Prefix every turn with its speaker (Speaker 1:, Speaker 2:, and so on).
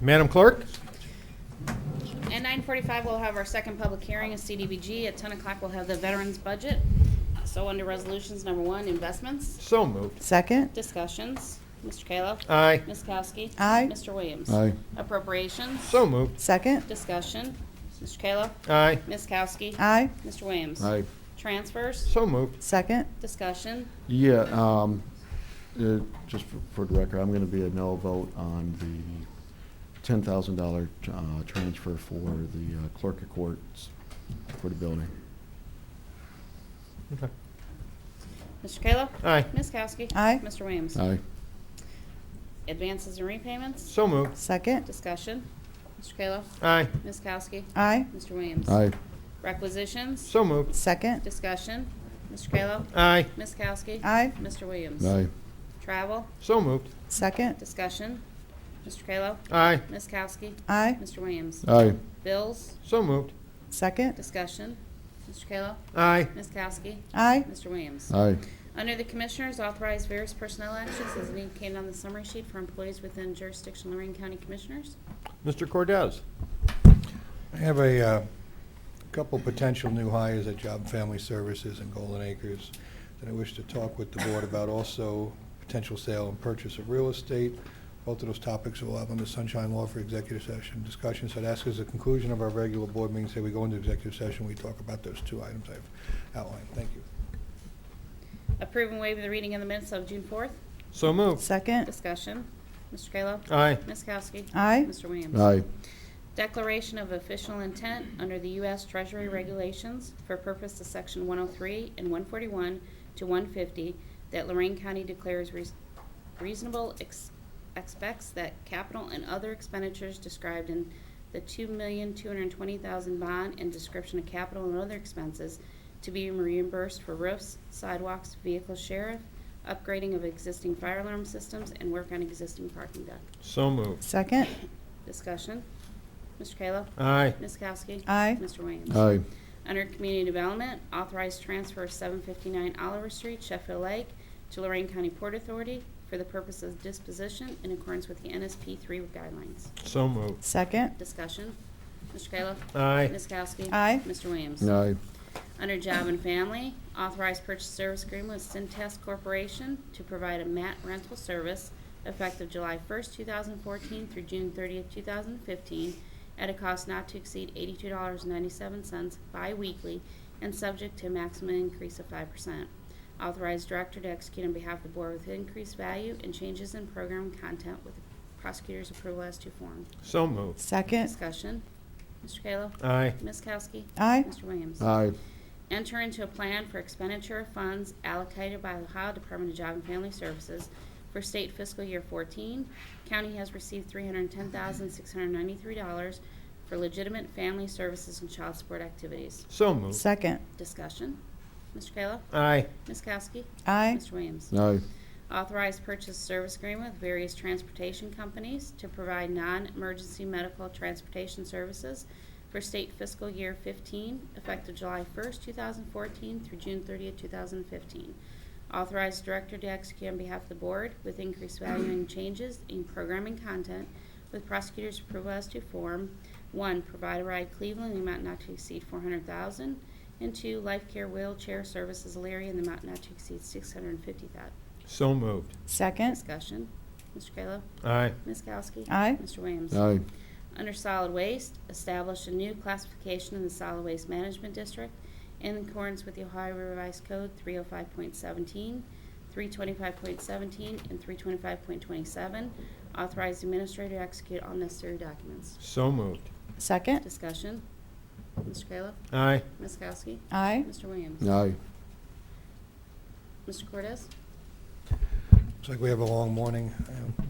Speaker 1: Madam Clerk?
Speaker 2: At nine forty-five, we'll have our second public hearing of CDBG. At ten o'clock, we'll have the veterans budget. So under resolutions, number one, investments,
Speaker 1: So moved.
Speaker 3: Second.
Speaker 2: discussions. Mr. Kayla?
Speaker 1: Aye.
Speaker 2: Ms. Kowski?
Speaker 3: Aye.
Speaker 2: Mr. Williams?
Speaker 4: Aye.
Speaker 2: Appropriations,
Speaker 1: So moved.
Speaker 3: Second.
Speaker 2: discussion. Mr. Kayla?
Speaker 1: Aye.
Speaker 2: Ms. Kowski?
Speaker 3: Aye.
Speaker 2: Mr. Williams?
Speaker 4: Aye.
Speaker 2: Transfers,
Speaker 1: So moved.
Speaker 3: Second.
Speaker 2: discussion.
Speaker 4: Yeah, um, uh, just for- for the record, I'm going to be a no vote on the $10,000 uh, transfer for the uh, clerk of courts for the building.
Speaker 1: Okay.
Speaker 2: Mr. Kayla?
Speaker 1: Aye.
Speaker 2: Ms. Kowski?
Speaker 3: Aye.
Speaker 2: Mr. Williams?
Speaker 4: Aye.
Speaker 2: Advances and repayments,
Speaker 1: So moved.
Speaker 3: Second.
Speaker 2: discussion. Mr. Kayla?
Speaker 1: Aye.
Speaker 2: Ms. Kowski?
Speaker 3: Aye.
Speaker 2: Mr. Williams?
Speaker 4: Aye.
Speaker 2: Requisitions,
Speaker 1: So moved.
Speaker 3: Second.
Speaker 2: discussion. Mr. Kayla?
Speaker 1: Aye.
Speaker 2: Ms. Kowski?
Speaker 3: Aye.
Speaker 2: Mr. Williams?
Speaker 4: Aye.
Speaker 2: Travel,
Speaker 1: So moved.
Speaker 3: Second.
Speaker 2: discussion. Mr. Kayla?
Speaker 1: Aye.
Speaker 2: Ms. Kowski?
Speaker 3: Aye.
Speaker 2: Mr. Williams?
Speaker 4: Aye.
Speaker 2: Bills,
Speaker 1: So moved.
Speaker 3: Second.
Speaker 2: discussion. Mr. Kayla?
Speaker 1: Aye.
Speaker 2: Ms. Kowski?
Speaker 3: Aye.
Speaker 2: Mr. Williams?
Speaker 4: Aye.
Speaker 2: Under the Commissioners, authorize various personnel actions as indicated on the summary sheet for employees within jurisdiction Lorraine County Commissioners.
Speaker 1: Mr. Cordez?
Speaker 5: I have a uh, couple potential new hires at Job and Family Services and Golden Acres that I wish to talk with the board about, also potential sale and purchase of real estate. Both of those topics will have on the sunshine law for executive session discussion. So I'd ask as a conclusion of our regular board meeting, say we go into executive session, we talk about those two items I've outlined. Thank you.
Speaker 2: Approve and waive the reading of the minutes of June 4th.
Speaker 1: So moved.
Speaker 3: Second.
Speaker 2: Discussion. Mr. Kayla?
Speaker 1: Aye.
Speaker 2: Ms. Kowski?
Speaker 3: Aye.
Speaker 2: Mr. Williams?
Speaker 4: Aye.
Speaker 2: Declaration of official intent under the U.S. Treasury regulations for purpose of Section 103 and 141 to 150 that Lorraine County declares reas- reasonable ex- expects that capital and other expenditures described in the $2,220,000 bond and description of capital and other expenses to be reimbursed for roofs, sidewalks, vehicle sheriff, upgrading of existing fire alarm systems, and work on existing parking deck.
Speaker 1: So moved.
Speaker 3: Second.
Speaker 2: Discussion. Mr. Kayla?
Speaker 1: Aye.
Speaker 2: Ms. Kowski?
Speaker 3: Aye.
Speaker 2: Mr. Williams?
Speaker 4: Aye.
Speaker 2: Under Community Development, authorized transfer of 759 Oliver Street, Sheffield Lake, to Lorraine County Port Authority for the purpose of disposition in accordance with the NSP 3 guidelines.
Speaker 1: So moved.
Speaker 3: Second.
Speaker 2: Discussion. Mr. Kayla?
Speaker 1: Aye.
Speaker 2: Ms. Kowski?
Speaker 3: Aye.
Speaker 2: Mr. Williams?
Speaker 4: Aye.
Speaker 2: Under Job and Family, authorized purchase service agreement with Centest Corporation to provide a mat rental service effective July 1st, 2014 through June 30th, 2015, at a cost not to exceed $82.97 biweekly and subject to a maximum increase of 5%. Authorized director to execute on behalf of the board with increased value and changes in program content with prosecutor's approval as to form.
Speaker 1: So moved.
Speaker 3: Second.
Speaker 2: Discussion. Mr. Kayla?
Speaker 1: Aye.
Speaker 2: Ms. Kowski?
Speaker 3: Aye.
Speaker 2: Mr. Williams?
Speaker 4: Aye.
Speaker 2: Enter into a plan for expenditure of funds allocated by the Ohio Department of Job and Family Services for state fiscal year 14. County has received $310,693 for legitimate family services and child support activities.
Speaker 1: So moved.
Speaker 3: Second.
Speaker 2: Discussion. Mr. Kayla?
Speaker 1: Aye.
Speaker 2: Ms. Kowski?
Speaker 3: Aye.
Speaker 2: Mr. Williams?
Speaker 4: Aye.
Speaker 2: Authorized purchase service agreement with various transportation companies to provide non-emergency medical transportation services for state fiscal year 15, effective July 1st, 2014 through June 30th, 2015. Authorized director to execute on behalf of the board with increased value and changes in programming content with prosecutor's approval as to form. One, provide a ride Cleveland in the amount not to exceed 400000 And two, Life Care Wheelchair Services Alaria in the amount not to exceed 650000
Speaker 1: So moved.
Speaker 3: Second.
Speaker 2: Discussion. Mr. Kayla?
Speaker 1: Aye.
Speaker 2: Ms. Kowski?
Speaker 3: Aye.
Speaker 2: Mr. Williams?
Speaker 4: Aye.
Speaker 2: Under solid waste, establish a new classification in the solid waste management district in accordance with the Ohio Revised Code 305.17, 325.17, and 325.27. Authorize administrator to execute all necessary documents.
Speaker 1: So moved.
Speaker 3: Second.
Speaker 2: Discussion. Mr. Kayla?
Speaker 1: Aye.
Speaker 2: Ms. Kowski?
Speaker 3: Aye.
Speaker 2: Mr. Williams?
Speaker 4: Aye.
Speaker 2: Mr. Cortez?
Speaker 5: Looks like we have a long morning. Um,